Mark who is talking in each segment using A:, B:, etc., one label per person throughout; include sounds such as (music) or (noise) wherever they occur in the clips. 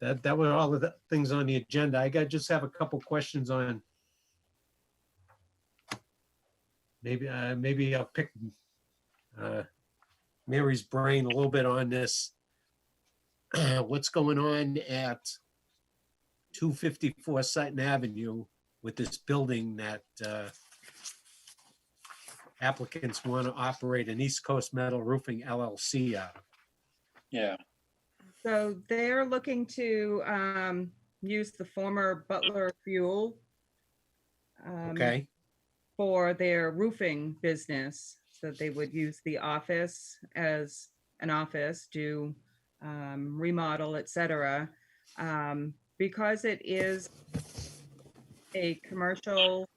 A: That, that were all of the things on the agenda. I got, just have a couple questions on. Maybe, uh, maybe I'll pick, uh, Mary's brain a little bit on this. (clears throat) What's going on at two fifty-four Sutton Avenue with this building that, uh, applicants want to operate an East Coast Metal Roofing LLC out of?
B: Yeah,
C: So they're looking to um, use the former Butler Fuel um,
A: Okay,
C: for their roofing business. So they would use the office as an office, do um, remodel, et cetera. Um, Because it is a commercial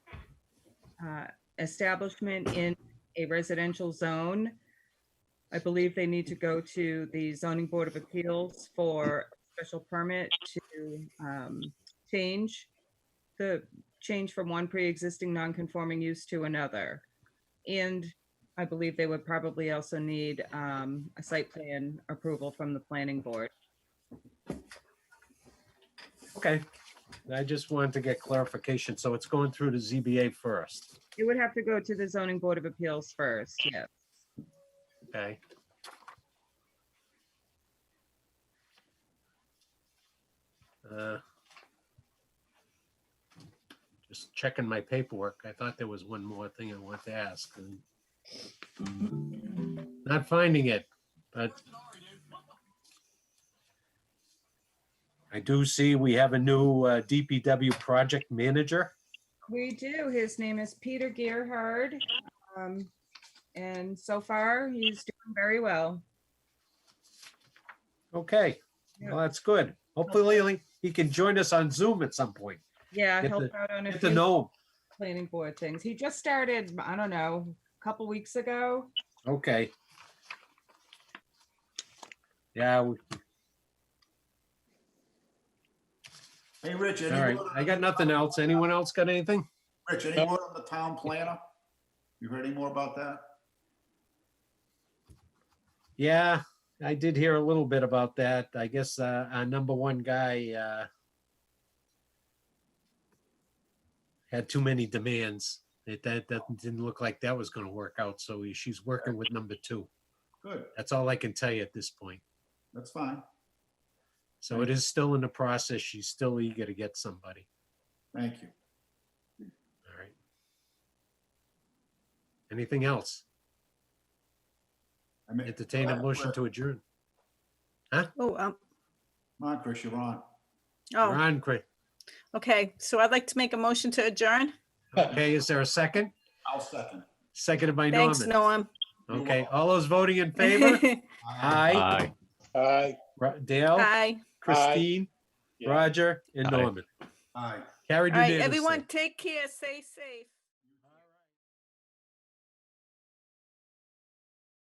C: uh, establishment in a residential zone, I believe they need to go to the zoning board of appeals for special permit to um, change the change from one pre-existing non-conforming use to another. And I believe they would probably also need um, a site plan approval from the planning board.
A: okay. I just wanted to get clarification. So it's going through to ZBA first,
C: It would have to go to the zoning board of appeals first, yeah.
A: okay? Uh, Just checking my paperwork. I thought there was one more thing I wanted to ask. and- Not finding it, but I do see we have a new uh, DPW project manager.
C: We do. His name is Peter Gearhard. um, And so far, he's doing very well.
A: Okay, well, that's good. Hopefully, he can join us on Zoom at some point.
C: Yeah,
A: Get
C: helped
A: to-
C: out on a
A: Get to
C: few
A: know
C: planning board things. He just started, I don't know, a couple weeks ago.
A: him. Okay. Yeah, we-
D: Hey, Rich,
A: all right.
D: anyone,
A: I got nothing else. Anyone else got anything?
D: Rich, any more on the town planner? You heard any more about that?
A: Yeah, I did hear a little bit about that. I guess uh, our number one guy uh, had too many demands. It, that, that didn't look like that was going to work out. So she's working with number two.
D: Good,
A: That's all I can tell you at this point.
D: that's fine.
A: So it is still in the process. She's still eager to get somebody.
D: Thank you.
A: All right. Anything else?
D: I mean-
A: Entertain a motion to adjourn.
E: Oh, um,
D: Come on, Chris, you're on.
E: oh,
A: Ron, Cra-
E: okay. So I'd like to make a motion to adjourn.
A: okay, is there a second?
D: I'll second.
A: Seconded by
E: Thanks,
A: Norman.
E: Norm.
A: Okay, all those voting in favor?
E: (laughs)
A: Oh, Aye.
B: aye.
A: Ro- Dale,
E: Bye.
A: Christine,
B: Yeah.
A: Roger, and
F: Aye.
A: Norman.
D: Aye.
A: Carried
E: All right,
A: unanimously.
E: everyone, take care. Stay safe.